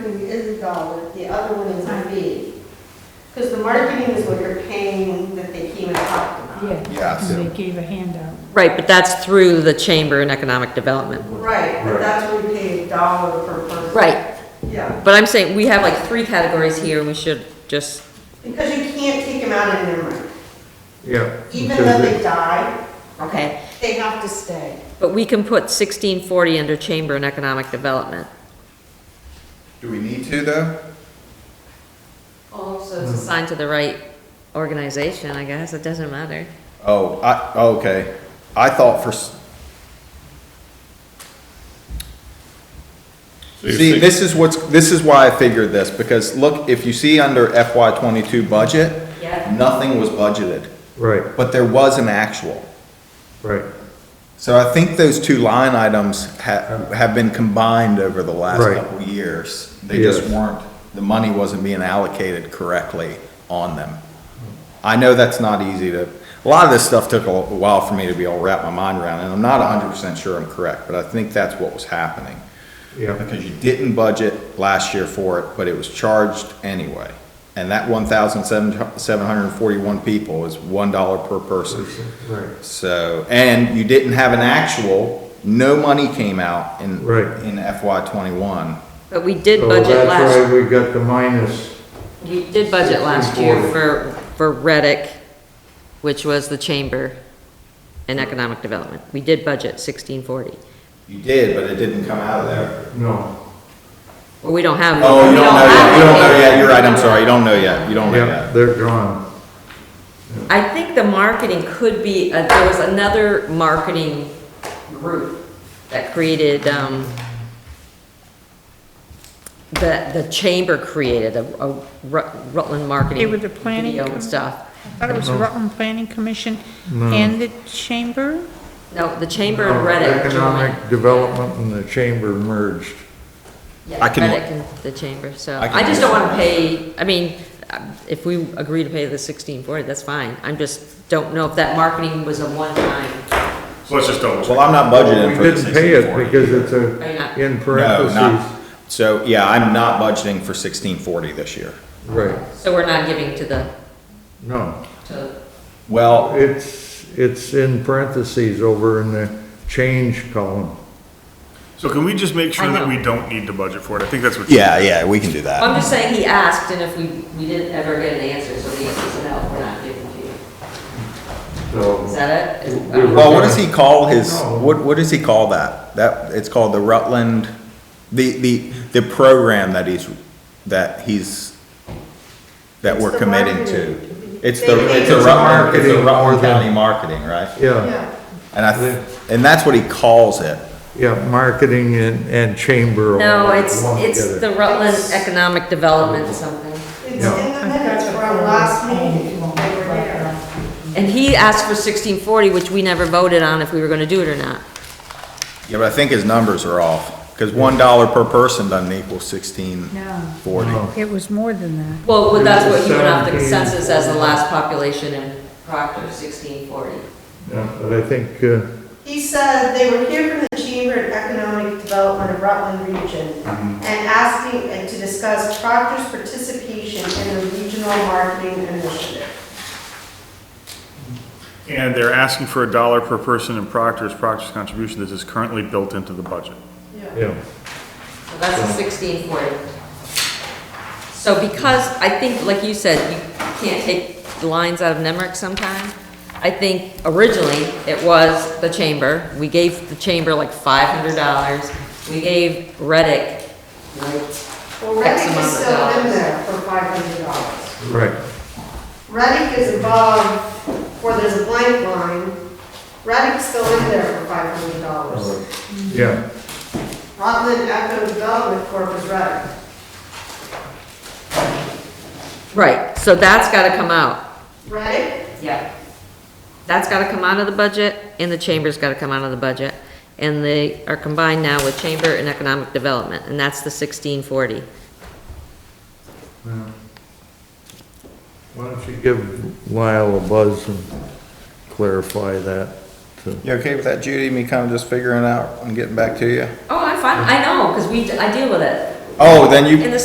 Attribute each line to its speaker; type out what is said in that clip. Speaker 1: you is a dollar, the other one is a fee. Because the marketing is what you're paying that they came and talked about.
Speaker 2: Yes.
Speaker 3: Yeah, and they gave a handout.
Speaker 4: Right, but that's through the Chamber and Economic Development.
Speaker 1: Right, but that's where we pay a dollar per person.
Speaker 4: Right,
Speaker 1: Yeah,
Speaker 4: but I'm saying, we have like three categories here, we should just,
Speaker 1: because you can't take them out of memory.
Speaker 2: Yeah.
Speaker 1: Even though they die,
Speaker 4: okay.
Speaker 1: they have to stay.
Speaker 4: But we can put sixteen forty under Chamber and Economic Development.
Speaker 3: Do we need to though?
Speaker 4: Also, Oh,
Speaker 3: Hmm.
Speaker 4: it's assigned to the right organization, I guess, it doesn't matter.
Speaker 3: Oh, I, oh, okay. I thought for, s-
Speaker 5: So you're
Speaker 3: see,
Speaker 5: saying-
Speaker 3: this is what's, this is why I figured this, because look, if you see under FY twenty-two budget,
Speaker 4: Yeah.
Speaker 3: nothing was budgeted,
Speaker 2: Right,
Speaker 3: but there was an actual.
Speaker 2: right,
Speaker 3: So I think those two line items have, have been combined over the last
Speaker 2: Right.
Speaker 3: couple of years. They just
Speaker 2: Yes.
Speaker 3: weren't, the money wasn't being allocated correctly on them. I know that's not easy to, a lot of this stuff took a while for me to be able to wrap my mind around, and I'm not hundred percent sure I'm correct, but I think that's what was happening.
Speaker 2: yeah,
Speaker 3: Because you didn't budget last year for it, but it was charged anyway. And that one thousand seven, seven hundred and forty-one people is one dollar per person.
Speaker 2: right.
Speaker 3: So, and you didn't have an actual, no money came out in,
Speaker 2: Right.
Speaker 3: in FY twenty-one.
Speaker 4: But we did
Speaker 3: Oh,
Speaker 2: So
Speaker 4: budget
Speaker 2: That's
Speaker 4: last,
Speaker 2: why we got the minus,
Speaker 4: we did budget last year
Speaker 2: 1640.
Speaker 4: for, for Reddick, which was the Chamber and Economic Development. We did budget sixteen forty.
Speaker 3: You did, but it didn't come out of there.
Speaker 2: no,
Speaker 4: Well, we don't have.
Speaker 3: Oh, you
Speaker 4: we
Speaker 3: don't know
Speaker 4: have
Speaker 3: yet, you don't know
Speaker 4: anything.
Speaker 3: yet, you're right, I'm sorry, you don't know yet, you don't know
Speaker 2: yeah,
Speaker 3: yet.
Speaker 2: they're gone.
Speaker 4: I think the marketing could be, uh, there was another marketing group that created, um, that the chamber created, a, a Rut- Rutland marketing.
Speaker 3: They
Speaker 4: with
Speaker 3: were
Speaker 4: the
Speaker 3: planning
Speaker 4: Video and stuff.
Speaker 3: com-
Speaker 5: I thought it was the Rutland Planning Commission
Speaker 2: No.
Speaker 5: and the Chamber?
Speaker 4: No, the chamber
Speaker 3: Oh,
Speaker 4: and Reddick joined.
Speaker 2: Economic Development and the Chamber merged.
Speaker 4: Yeah,
Speaker 3: I can-
Speaker 4: Reddick and the chamber, so
Speaker 3: I can-
Speaker 4: I just don't wanna pay, I mean, uh, if we agree to pay the sixteen forty, that's fine. I'm just, don't know if that marketing was a one-time.
Speaker 5: Let's just double
Speaker 3: Well, I'm not
Speaker 2: We
Speaker 3: budgeting for the
Speaker 2: didn't pay
Speaker 3: sixteen
Speaker 2: it
Speaker 3: forty.
Speaker 2: because it's
Speaker 4: Are you not?
Speaker 2: a, in
Speaker 3: No, not,
Speaker 2: parentheses,
Speaker 3: so, yeah, I'm not budgeting for sixteen forty this year.
Speaker 2: right,
Speaker 4: So we're not giving to the,
Speaker 2: no.
Speaker 4: to the
Speaker 3: Well,
Speaker 2: It's, it's in parentheses over in the change column.
Speaker 5: So can we just make
Speaker 4: sure I that know. we
Speaker 5: don't need to budget for it? I think that's what.
Speaker 3: yeah, yeah, we can do that.
Speaker 4: I'm just saying he asked, and if we, we didn't ever get an answer, so the answer is no, we're not giving to you. Is
Speaker 2: So,
Speaker 4: that it? Is-
Speaker 2: We- we-
Speaker 3: Well, what does he call his,
Speaker 2: Oh, No.
Speaker 3: what, what does he call that? That, it's called the Rutland, the, the, the program that he's, that he's, that
Speaker 1: It's
Speaker 3: we're
Speaker 1: the
Speaker 3: committing to.
Speaker 1: marketing.
Speaker 3: It's
Speaker 1: They
Speaker 3: the,
Speaker 1: make
Speaker 3: it's the
Speaker 2: it.
Speaker 3: Rutland, it's the
Speaker 2: Marketing.
Speaker 3: Rutland County Marketing, right?
Speaker 2: yeah,
Speaker 1: Yeah.
Speaker 3: And I, th- and that's what he calls it.
Speaker 2: yeah, marketing and, and chamber. all
Speaker 4: No, it's,
Speaker 2: lumped
Speaker 4: it's
Speaker 2: together.
Speaker 4: the Rutland Economic Development something.
Speaker 1: It's in
Speaker 2: Yeah.
Speaker 1: the minutes from last meeting, they were there.
Speaker 4: And he asked for sixteen forty, which we never voted on if we were gonna do it or not.
Speaker 3: Yeah, but I think his numbers are off, because one dollar per person doesn't equal sixteen
Speaker 6: No,
Speaker 3: forty.
Speaker 2: No.
Speaker 6: it was more than that.
Speaker 4: Well, but that's what he went off the
Speaker 2: 17.
Speaker 4: consensus as the last population in Proctor, sixteen forty.
Speaker 2: Yeah, but I think, uh,
Speaker 1: He said they were here from the Chamber of Economic Development of Rutland Region and asking and to discuss Proctor's participation in the regional marketing initiative.
Speaker 7: And they're asking for a dollar per person in Proctor's, Proctor's contribution, this is currently built into the budget.
Speaker 2: yeah,
Speaker 4: So that's the sixteen forty. So because, I think, like you said, you can't take lines out of Nemrick sometime. I think originally it was the chamber. We gave the chamber like five hundred dollars. We gave Reddick, like,
Speaker 1: Well, Reddick is
Speaker 4: amount of
Speaker 1: still in
Speaker 4: dollars.
Speaker 1: there for five hundred dollars.
Speaker 2: right.
Speaker 1: Reddick is above, where there's a blank line, Reddick's still in there for five hundred dollars.
Speaker 2: Yeah,
Speaker 1: Rutland Economic Development Corp is Reddick.
Speaker 4: right, so that's gotta come out.
Speaker 1: Reddick,
Speaker 4: Yeah. That's gotta come out of the budget, and the chamber's gotta come out of the budget. And they are combined now with chamber and economic development, and that's the sixteen forty.
Speaker 2: why don't you give Lyle a buzz and clarify that? to-
Speaker 3: You okay with that, Judy, me kind of just figuring out and getting back to you?
Speaker 4: Oh, I'm fine, I know, because we, I deal with it.
Speaker 3: Oh, then you,
Speaker 4: In the